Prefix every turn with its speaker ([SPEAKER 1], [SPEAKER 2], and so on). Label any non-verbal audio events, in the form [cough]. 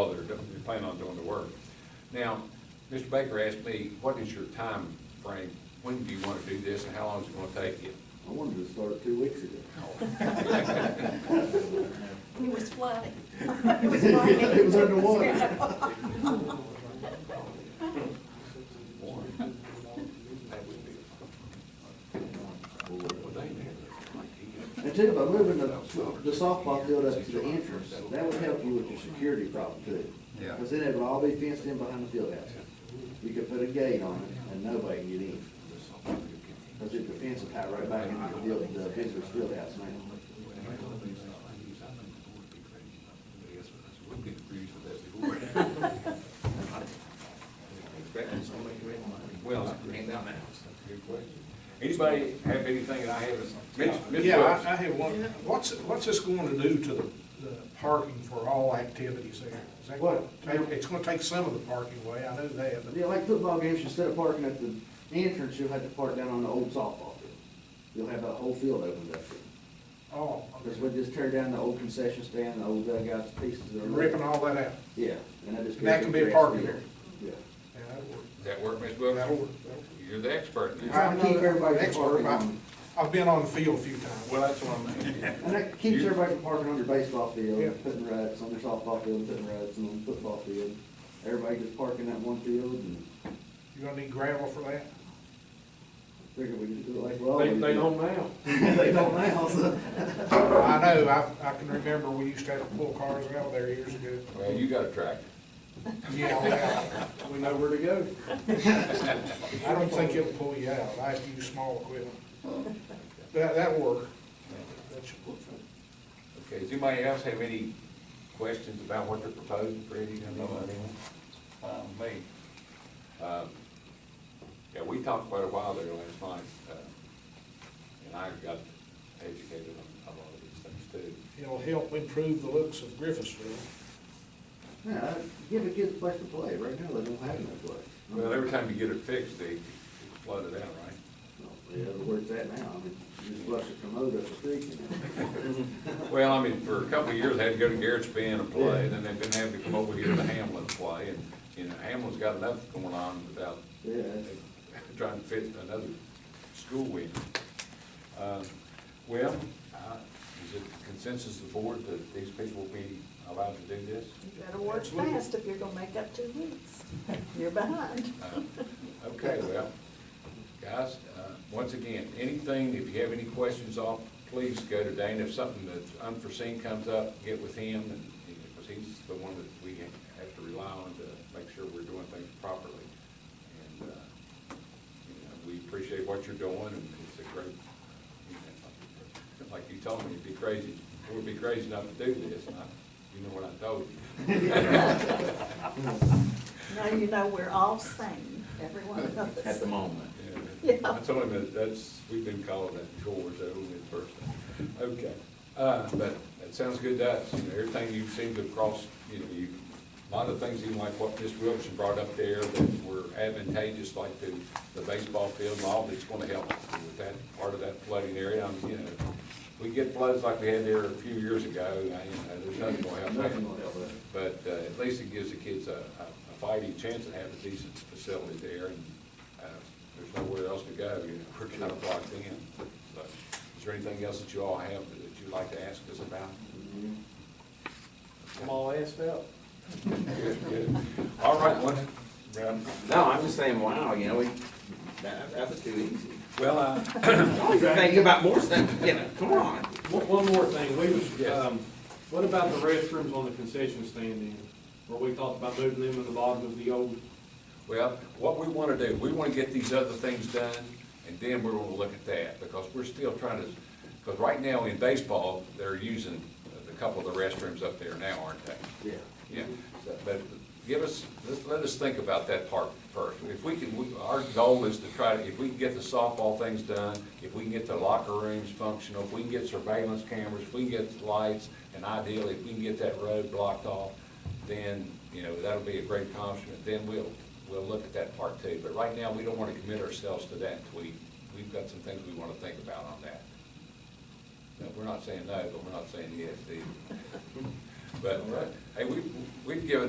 [SPEAKER 1] while they're, do- they're planning on doing the work. Now, Mr. Baker asked me, what is your time frame? When do you want to do this and how long is it going to take you?
[SPEAKER 2] I wanted to start two weeks ago.
[SPEAKER 3] It was flooding.
[SPEAKER 2] It was flooding. It was underwater.
[SPEAKER 1] [laughs] That would be.
[SPEAKER 2] And too, by moving the, the softball field up to the entrance, that would help you with your security problem too.
[SPEAKER 1] Yeah.
[SPEAKER 2] Cause then it would all be fenced in behind the field house. You could put a gate on it and nobody can get in. Cause if the fence is tied right back into the field, the visitor's field house now.
[SPEAKER 1] Well, good question. Anybody have anything that I haven't? Mitch- Mitch
[SPEAKER 4] Yeah,
[SPEAKER 1] Brooks.
[SPEAKER 4] I, I have one, what's, what's this going to do to the, the parking for all activities there? Is that gonna
[SPEAKER 2] What?
[SPEAKER 4] take- It's gonna take some of the parking away, I know that, but
[SPEAKER 2] Yeah, like football games, instead of parking at the entrance, you'll have to park down on the old softball field. You'll have that whole field opened up.
[SPEAKER 4] oh,
[SPEAKER 2] Cause we'll just tear down the old concession stand, the old dugouts, pieces of.
[SPEAKER 4] ripping all that out.
[SPEAKER 2] Yeah, and I just.
[SPEAKER 4] That can be a parking area.
[SPEAKER 2] Yeah.
[SPEAKER 4] Yeah, that'll work.
[SPEAKER 1] Does that work, Ms. Wilson?
[SPEAKER 4] That'll work, that'll work.
[SPEAKER 1] You're the expert now.
[SPEAKER 2] Trying to keep everybody
[SPEAKER 4] I'm not an expert,
[SPEAKER 2] parking
[SPEAKER 4] but
[SPEAKER 2] on-
[SPEAKER 4] I've been on the field a few times.
[SPEAKER 1] Well, that's what I'm,
[SPEAKER 2] And that keeps everybody from parking on their baseball
[SPEAKER 4] Yeah.
[SPEAKER 2] field, putting rats on their softball field, putting rats on the football field. Everybody just parking that one field and
[SPEAKER 4] You're gonna need gravel for that?
[SPEAKER 2] figure we can do it like, well.
[SPEAKER 5] They, they don't now.
[SPEAKER 2] [laughs] They don't now, so.
[SPEAKER 4] I know, I, I can remember we used to have to pull cars out of there years ago.
[SPEAKER 1] well, you got a tractor.
[SPEAKER 4] Yeah, yeah.
[SPEAKER 5] We know where to go.
[SPEAKER 4] I don't think it'll pull you out, I have to use small equipment. That, that'll work. That should work.
[SPEAKER 1] Okay, does anybody else have any questions about what they're proposing, Freddie? I know I don't. Uh, Me. Um, Yeah, we talked quite a while there last night, uh, and I got educated on a lot of these things too.
[SPEAKER 4] It'll help improve the looks of Griffithsville.
[SPEAKER 2] Yeah, give the kids a place to play. Right now, they don't have no place.
[SPEAKER 1] Well, every time you get it fixed, they flood it out,
[SPEAKER 2] [laughs]
[SPEAKER 1] right?
[SPEAKER 2] Yeah, but where's that now? I mean, you just flush a commode up the creek and.
[SPEAKER 1] Well, I mean, for a couple of years, they had to go to Garrett's Bend and play, and then they've been having to come over here to Hamlin to play, and, you know, Hamlin's got enough going on without
[SPEAKER 2] Yeah, that's-
[SPEAKER 1] trying to fit another school week. Um, Well, uh, is it consensus of the board that these people will be allowed to do this?
[SPEAKER 3] You better work fast if you're gonna make up two weeks. You're behind.
[SPEAKER 1] Uh, [laughs] Okay, well, guys, uh, once again, anything, if you have any questions off, please go to Dane. If something that's unforeseen comes up, get with him, and, because he's the one that we have to rely on to make sure we're doing things properly. And, uh, you know, we appreciate what you're doing, and it's a great, you know, like you told me, it'd be crazy, it would be crazy not to do this, and I, you know what I told you. [laughs]
[SPEAKER 3] Now you know we're all sane, every one of us. At the moment.
[SPEAKER 1] Yeah,
[SPEAKER 3] Yeah.
[SPEAKER 1] I told him that, that's, we've been calling that before, so in person. Okay, uh, but that sounds good to us, you know, everything you seem to cross, you know, you, a lot of things, even like what Ms. Wilson brought up there, that were advantageous, like the, the baseball field and all, that's gonna help with that, part of that flooding area, I'm, you know, we get floods like we had there a few years ago, I, you know, there's nothing gonna help that.
[SPEAKER 2] Nothing will help that.
[SPEAKER 1] But uh, at least it gives the kids a, a a fighting chance to have a decent facility there, and uh, there's nowhere else to go, you know, [laughs] we're kind of blocked in. So, Is there anything else that you all have that you'd like to ask us about?
[SPEAKER 5] I'm all asked out.
[SPEAKER 1] Good, good. All right, one, round.
[SPEAKER 6] No, I'm just saying, wow, you know, we, that, that was too easy.
[SPEAKER 1] well, uh,
[SPEAKER 6] Don't even think about more stuff, you know, come on.
[SPEAKER 5] One, one more thing, we was,
[SPEAKER 1] Yes.
[SPEAKER 5] um, what about the restrooms on the concession stand in? Where we talked about moving them to the bottom of the old,
[SPEAKER 1] Well, what we want to do, we want to get these other things done, and then we're going to look at that, because we're still trying to, because right now in baseball, they're using a couple of the restrooms up there now, aren't they?
[SPEAKER 2] Yeah.
[SPEAKER 1] Yeah, so, but give us, let let us think about that part first. If we can, we- our goal is to try to, if we can get the softball things done, if we can get the locker rooms functional, if we can get surveillance cameras, if we can get lights, and ideally, if we can get that road blocked off, then, you know, that'll be a great accomplishment, then we'll, we'll look at that part too. But right now, we don't wanna commit ourselves to that until we, we've got some things we wanna think about on that. No, we're [laughs] not saying no, but we're not saying yes either. But, uh, hey, we, we've given